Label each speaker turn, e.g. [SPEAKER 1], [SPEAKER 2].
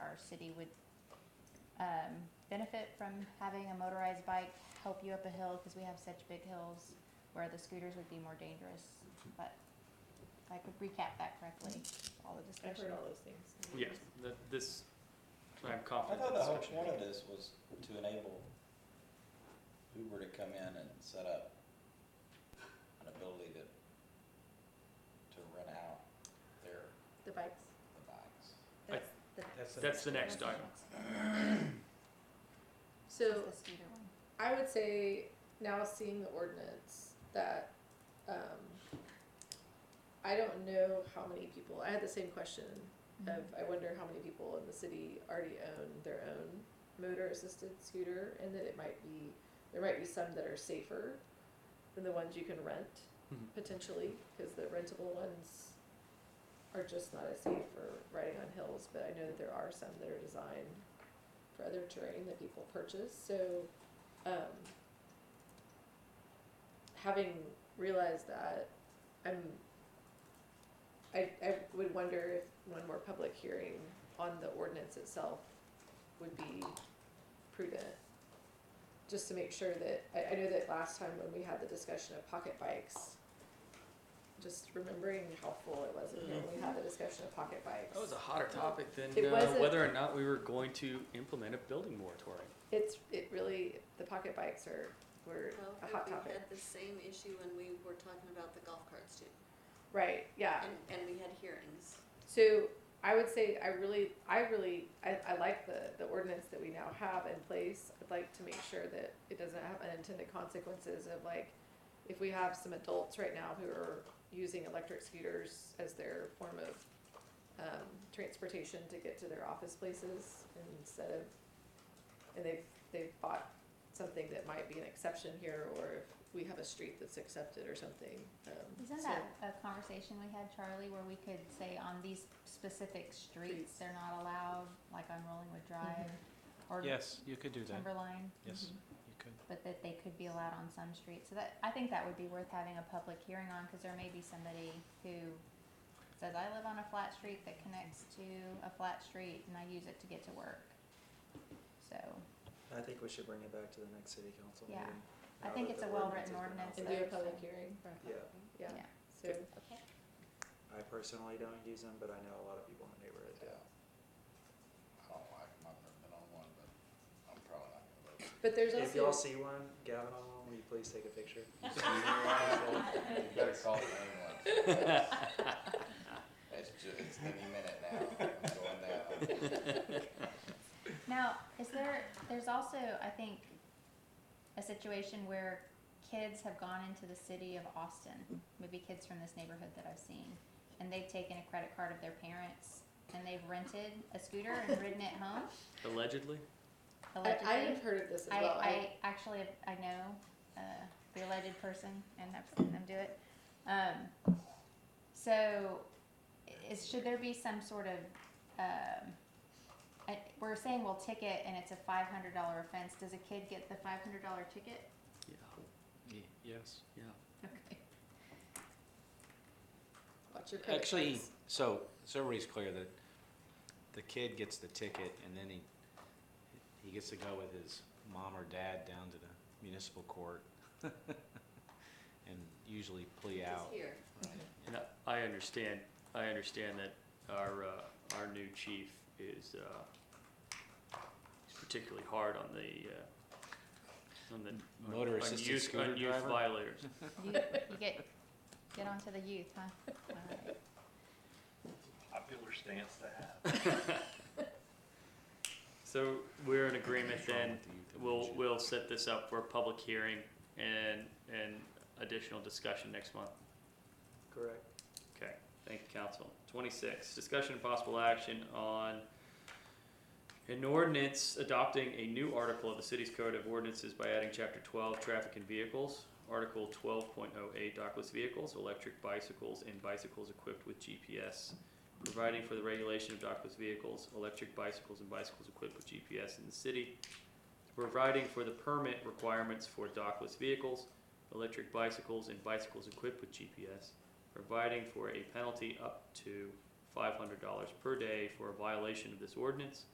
[SPEAKER 1] city would um, benefit from having a motorized bike help you up a hill, because we have such big hills where the scooters would be more dangerous, but if I could recap that correctly, all the
[SPEAKER 2] I've
[SPEAKER 1] discussion.
[SPEAKER 2] heard all those things.
[SPEAKER 3] Yes, that, this, I'm
[SPEAKER 4] I
[SPEAKER 3] confident.
[SPEAKER 4] thought the
[SPEAKER 3] this
[SPEAKER 4] whole
[SPEAKER 3] action-
[SPEAKER 4] point of this was to enable Uber to come in and set up an ability to, to rent out their,
[SPEAKER 2] The bikes.
[SPEAKER 4] the bikes.
[SPEAKER 3] I-
[SPEAKER 2] That's the,
[SPEAKER 3] That's the next item.
[SPEAKER 1] The
[SPEAKER 2] so
[SPEAKER 1] scooter one.
[SPEAKER 2] I would say now seeing the ordinance that, um, I don't know how many people, I had the same question
[SPEAKER 1] Mm-hmm.
[SPEAKER 2] of,
[SPEAKER 1] Mhm.
[SPEAKER 2] I wonder how many people in the city already own their own motor assisted scooter and that it might be, there might be some that are safer than the ones you can rent
[SPEAKER 5] Mm-hmm.
[SPEAKER 3] Mhm.
[SPEAKER 2] potentially, because the rentable ones are just not as safe for riding on hills, but I know that there are some that are designed for other terrain that people purchase, so, um, having realized that, I'm, I, I would wonder if one more public hearing on the ordinance itself would be prudent. Just to make sure that, I, I know that last time when we had the discussion of pocket bikes, just remembering how full it was in here, when we had the discussion of pocket bikes.
[SPEAKER 3] That was a hotter topic than
[SPEAKER 2] It
[SPEAKER 3] uh,
[SPEAKER 2] wasn't-
[SPEAKER 3] whether or not we were going to implement a building moratorium.
[SPEAKER 2] It's, it really, the pocket bikes are, were
[SPEAKER 6] Well,
[SPEAKER 2] a hot
[SPEAKER 6] we
[SPEAKER 2] topic.
[SPEAKER 6] had the same issue when we were talking about the golf carts too,
[SPEAKER 2] Right, yeah.
[SPEAKER 6] and, and we had hearings.
[SPEAKER 2] So I would say I really, I really, I, I like the, the ordinance that we now have in place. I'd like to make sure that it doesn't have unintended consequences of like, if we have some adults right now who are using electric scooters as their form of um, transportation to get to their office places instead of, and they've, they've bought something that might be an exception here, or if we have a street that's accepted or something. um,
[SPEAKER 1] Isn't
[SPEAKER 2] so-
[SPEAKER 1] that a conversation we had, Charlie, where we could say on these specific streets,
[SPEAKER 2] Streets. Mm-hmm.
[SPEAKER 1] they're not allowed, like on Rollingwood Drive or
[SPEAKER 5] Yes, you could do that.
[SPEAKER 1] Timberline,
[SPEAKER 5] Yes, you could.
[SPEAKER 1] but that they could be allowed on some streets? So that, I think that would be worth having a public hearing on, cause there may be somebody who says, I live on a flat street that connects to a flat street and I use it to get to work. So,
[SPEAKER 7] I think we should bring it back to the next city council
[SPEAKER 1] Yeah.
[SPEAKER 7] meeting.
[SPEAKER 1] I
[SPEAKER 7] now
[SPEAKER 1] think
[SPEAKER 7] that
[SPEAKER 1] it's a
[SPEAKER 7] the
[SPEAKER 1] well-written
[SPEAKER 7] ordinance
[SPEAKER 2] And
[SPEAKER 7] has
[SPEAKER 2] do a
[SPEAKER 7] been
[SPEAKER 1] That's
[SPEAKER 2] public
[SPEAKER 1] fine.
[SPEAKER 2] hearing,
[SPEAKER 7] Yeah.
[SPEAKER 2] yeah,
[SPEAKER 1] yeah.
[SPEAKER 2] so.
[SPEAKER 6] Okay.
[SPEAKER 7] out. I personally don't use them, but I know a lot of people in the neighborhood do.
[SPEAKER 4] Yeah. I don't like them, I've never been on one, but I'm probably not gonna vote.
[SPEAKER 2] But there's also.
[SPEAKER 7] If y'all see one, Gavin on one, will you please take a picture?
[SPEAKER 4] You better call the ambulance. It's ju- it's any minute now, I'm going down.
[SPEAKER 1] Now, is there, there's also, I think, a situation where kids have gone into the city of Austin, maybe kids from this neighborhood that I've seen, and they've taken a credit card of their parents and they've rented a scooter and ridden it home
[SPEAKER 3] Allegedly,
[SPEAKER 2] I, I
[SPEAKER 1] allegedly.
[SPEAKER 2] have heard of this as
[SPEAKER 1] I,
[SPEAKER 2] well.
[SPEAKER 1] I actually, I know, uh, the alleged person and I've seen them do it. Um, so is, should there be some sort of, um, I, we're saying we'll ticket and it's a five hundred dollar offense. Does a kid get the five hundred dollar ticket?
[SPEAKER 3] yeah,
[SPEAKER 5] Ye- Yes.
[SPEAKER 3] yeah.
[SPEAKER 1] Okay.
[SPEAKER 2] Watch your credit
[SPEAKER 5] Actually,
[SPEAKER 2] cards.
[SPEAKER 5] so, so everybody's clear that the kid gets the ticket and then he, he gets to go with his mom or dad down to the municipal court and usually plea
[SPEAKER 6] It's
[SPEAKER 5] out.
[SPEAKER 6] here.
[SPEAKER 3] And I- I understand, I understand that our, uh, our new chief is, uh, is particularly hard on the, uh, on the. on-
[SPEAKER 5] Motor
[SPEAKER 3] on
[SPEAKER 5] assisted
[SPEAKER 3] youth-
[SPEAKER 5] scooter
[SPEAKER 3] On youth
[SPEAKER 5] driver?
[SPEAKER 3] violators.
[SPEAKER 1] You, you get, get onto the youth, huh? Alright.
[SPEAKER 8] popular stance to have.
[SPEAKER 3] So we're in agreement
[SPEAKER 5] What's wrong
[SPEAKER 3] then,
[SPEAKER 5] with the youth
[SPEAKER 3] we'll,
[SPEAKER 5] dimension?
[SPEAKER 3] we'll set this up for a public hearing and, and additional discussion next month.
[SPEAKER 7] Correct.
[SPEAKER 3] Okay, thank you, council. Twenty-six, discussion and possible action on an ordinance adopting a new article of the city's code of ordinances by adding chapter twelve, traffic and vehicles. Article twelve point oh eight, dockless vehicles, electric bicycles, and bicycles equipped with GPS. Providing for the regulation of dockless vehicles, electric bicycles, and bicycles equipped with GPS in the city. Providing for the permit requirements for dockless vehicles, electric bicycles, and bicycles equipped with GPS providing for a penalty up to five hundred dollars per day for a violation of this ordinance,